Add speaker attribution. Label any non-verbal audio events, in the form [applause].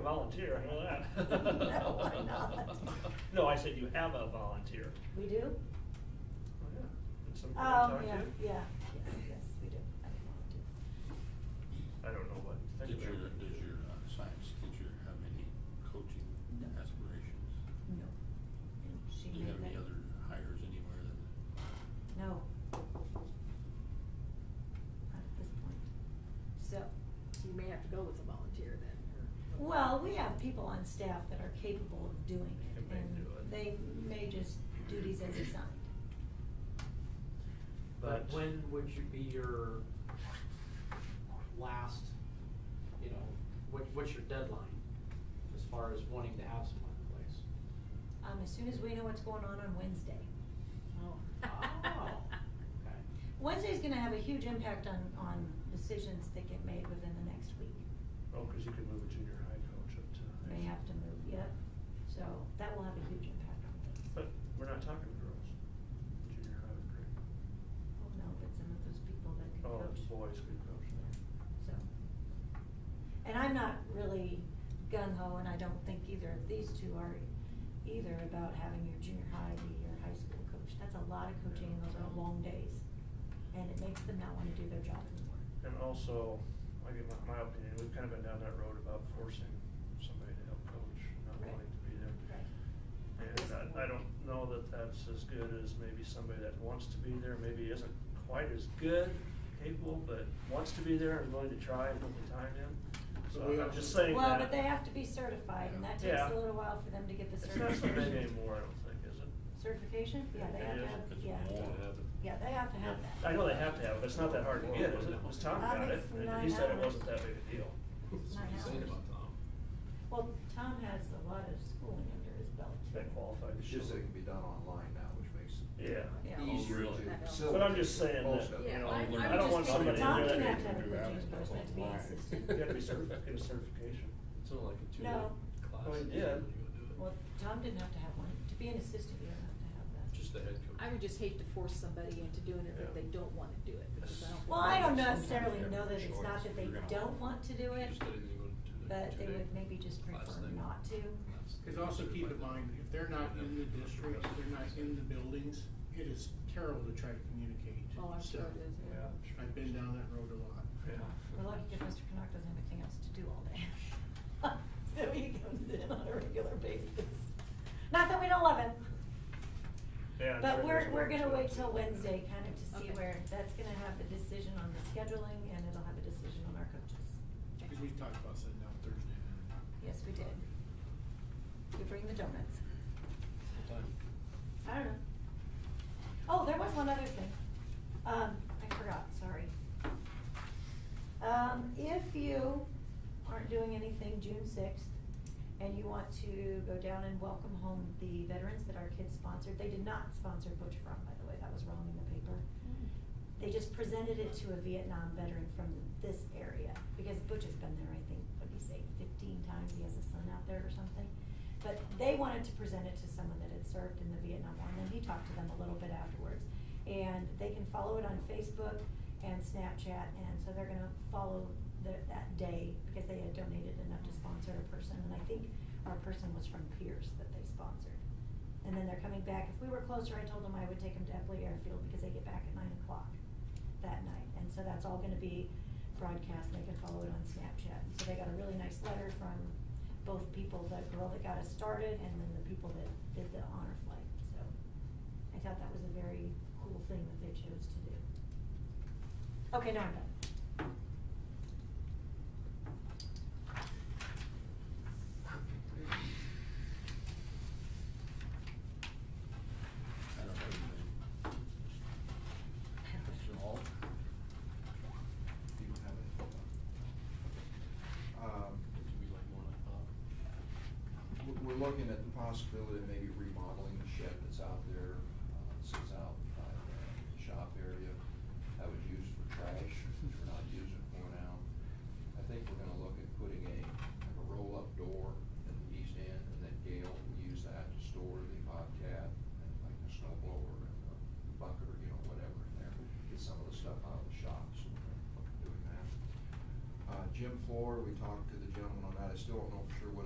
Speaker 1: volunteer, I know that.
Speaker 2: [laughs] No, we're not.
Speaker 1: No, I said you have a volunteer.
Speaker 2: We do?
Speaker 1: Oh, yeah. That's something I
Speaker 2: Oh,
Speaker 1: talked
Speaker 2: yeah,
Speaker 1: to.
Speaker 2: yeah, yes, yes, we do. I didn't want to.
Speaker 1: I don't know what. to
Speaker 3: Did
Speaker 1: think
Speaker 3: your,
Speaker 1: about it.
Speaker 3: did your uh, science teacher have any coaching
Speaker 2: No.
Speaker 3: aspirations?
Speaker 2: No. And she
Speaker 3: Do you
Speaker 2: made
Speaker 3: have any
Speaker 2: that-
Speaker 3: other hires anywhere that?
Speaker 2: No. Not at this point. So,
Speaker 4: You may have to go with a volunteer then, or.
Speaker 2: well, we have people on staff that are capable of doing it.
Speaker 1: They may do it.
Speaker 2: And they may just duties as assigned.
Speaker 5: But
Speaker 1: But-
Speaker 5: when would you be your last, you know, what, what's your deadline as far as wanting to have someone in place?
Speaker 2: Um, as soon as we know what's going on on Wednesday.
Speaker 4: Oh. [laughs]
Speaker 5: Oh, okay.
Speaker 2: Wednesday's gonna have a huge impact on, on decisions that get made within the next week.
Speaker 1: Oh, cause you could move a junior high coach up to. high
Speaker 2: They
Speaker 1: school.
Speaker 2: have to move, yep. So that will have a huge impact on things.
Speaker 1: But we're not talking girls. Junior high would great.
Speaker 2: Well, Oh, no, but some of those people that can
Speaker 1: Oh,
Speaker 2: coach.
Speaker 1: boys could coach.
Speaker 2: So. And I'm not really gung ho, and I don't think either of these two are either about having your junior high be your high school coach. That's a lot of coaching and those are long days. And it makes them not wanna do their job anymore.
Speaker 1: And also, I give my, my opinion, we've kind of been down that road about forcing somebody to help coach, not
Speaker 2: Right.
Speaker 1: wanting to be there.
Speaker 2: Right.
Speaker 1: And I, I don't know that that's as good as maybe somebody that wants to be there, maybe isn't quite as good, capable, but wants to be there and willing to try and put the time in. So
Speaker 6: But we
Speaker 1: I'm
Speaker 6: also-
Speaker 1: just saying that.
Speaker 2: Well, but they have to be certified, and that takes
Speaker 1: Yeah.
Speaker 2: a little while for them to get the
Speaker 1: It's not so
Speaker 2: certification.
Speaker 1: big anymore, I don't think, is it?
Speaker 2: Certification? Yeah, they
Speaker 1: It
Speaker 2: have to
Speaker 1: is.
Speaker 2: have,
Speaker 3: It's
Speaker 2: yeah.
Speaker 3: more.
Speaker 2: Yeah, they have to have that.
Speaker 1: I know they have to have, it, but it's not that hard to get, is it? Was Tom
Speaker 2: Um,
Speaker 1: got it,
Speaker 2: it's
Speaker 1: and he
Speaker 2: nine
Speaker 1: said it
Speaker 2: hours.
Speaker 1: wasn't that big a deal.
Speaker 2: It's nine
Speaker 6: What you saying
Speaker 2: hours.
Speaker 6: about Tom?
Speaker 2: Well, Tom has a lot of schooling under his belt. too.
Speaker 1: That qualified.
Speaker 6: It's just that it can be done online now, which makes it
Speaker 1: Yeah.
Speaker 2: Yeah. Oh,
Speaker 6: easier
Speaker 3: really?
Speaker 6: to
Speaker 4: That helps.
Speaker 6: facilitate.
Speaker 1: But I'm just saying
Speaker 6: most
Speaker 1: that,
Speaker 6: of
Speaker 1: you know,
Speaker 6: it.
Speaker 4: Yeah, I-
Speaker 1: I
Speaker 4: I would
Speaker 1: don't
Speaker 4: just
Speaker 1: want
Speaker 4: think
Speaker 1: somebody to
Speaker 2: Tom
Speaker 1: do
Speaker 2: can
Speaker 1: that.
Speaker 2: have to have a coaching person, to be an
Speaker 7: [laughs]
Speaker 2: assistant.
Speaker 1: You have to be certified, get a certification.
Speaker 6: It's only like a
Speaker 2: two-day No.
Speaker 6: class.
Speaker 1: Well, he did.
Speaker 2: Well, Tom didn't have to have one. To be an assistant, you don't have to have that.
Speaker 6: Just the head coach.
Speaker 4: I would just hate to force somebody into doing it if
Speaker 1: Yeah.
Speaker 4: they don't wanna do it, because I don't.
Speaker 2: Well, I don't
Speaker 4: think-
Speaker 2: necessarily know that it's not that they don't want to do it,
Speaker 6: Just didn't even do the
Speaker 2: but they
Speaker 6: two-day
Speaker 2: would maybe just
Speaker 6: class
Speaker 2: prefer
Speaker 6: thing.
Speaker 2: not to.
Speaker 6: That's-
Speaker 7: Cause also keep in mind, if they're not in the district, if they're not in the buildings, it is terrible to try to communicate.
Speaker 4: Oh, I'm sure it is, yeah.
Speaker 7: So, I've been down that road a lot.
Speaker 2: We're lucky if Mr. Canuck doesn't have anything else to do all day. [laughs] So he comes in on a regular basis. Not that we don't love him.
Speaker 1: Yeah,
Speaker 2: But
Speaker 1: sure
Speaker 2: we're,
Speaker 1: there's
Speaker 2: we're
Speaker 1: one
Speaker 2: gonna
Speaker 1: too.
Speaker 2: wait till Wednesday kind of to see
Speaker 4: Okay.
Speaker 2: where, that's gonna have a decision on the scheduling and it'll have a decision on our coaches.
Speaker 7: Cause we talked about sitting down Thursday. night.
Speaker 2: Yes, we did. You bring the donuts. I don't know. Oh, there was one other thing. Um, I forgot, sorry. Um, if you aren't doing anything June sixth and you want to go down and welcome home the veterans that our kids sponsored, they did not sponsor Butch Front, by the way, that was wrong in the paper. They just presented it to a Vietnam veteran from this area, because Butch has been there, I think, what'd he say, fifteen times, he has a son out there or something. But they wanted to present it to someone that had served in the Vietnam War, and then he talked to them a little bit afterwards. And they can follow it on Facebook and Snapchat, and so they're gonna follow the, that day, because they had donated enough to sponsor a person, and I think our person was from Pierce that they sponsored. And then they're coming back, if we were closer, I told them I would take them to Epley Airfield, because they get back at nine o'clock that night, and so that's all gonna be broadcast, and they can follow it on Snapchat. And So they got a really nice letter from both people, the girl that got us started, and then the people that did the honor flight, so I thought that was a very cool thing that they chose to do. Okay, now I'm done.
Speaker 3: I don't have anything. Mr. Hall?
Speaker 6: Do you have it? Um,
Speaker 3: It could be like more like Bob.
Speaker 6: we're- we're looking at the possibility of maybe remodeling the shed that's out there, uh, sits out by the shop area. That was used for trash, which we're not using for now. I think we're gonna look at putting a, like a roll-up door in the east end, and then Gail will use that to store the Bobcat and like the snow blower and the bucket or, you know, whatever in there. Get some of the stuff out of the shop, so we're gonna look at doing that. Uh, gym floor, we talked to the gentleman on that, I still don't know for sure after what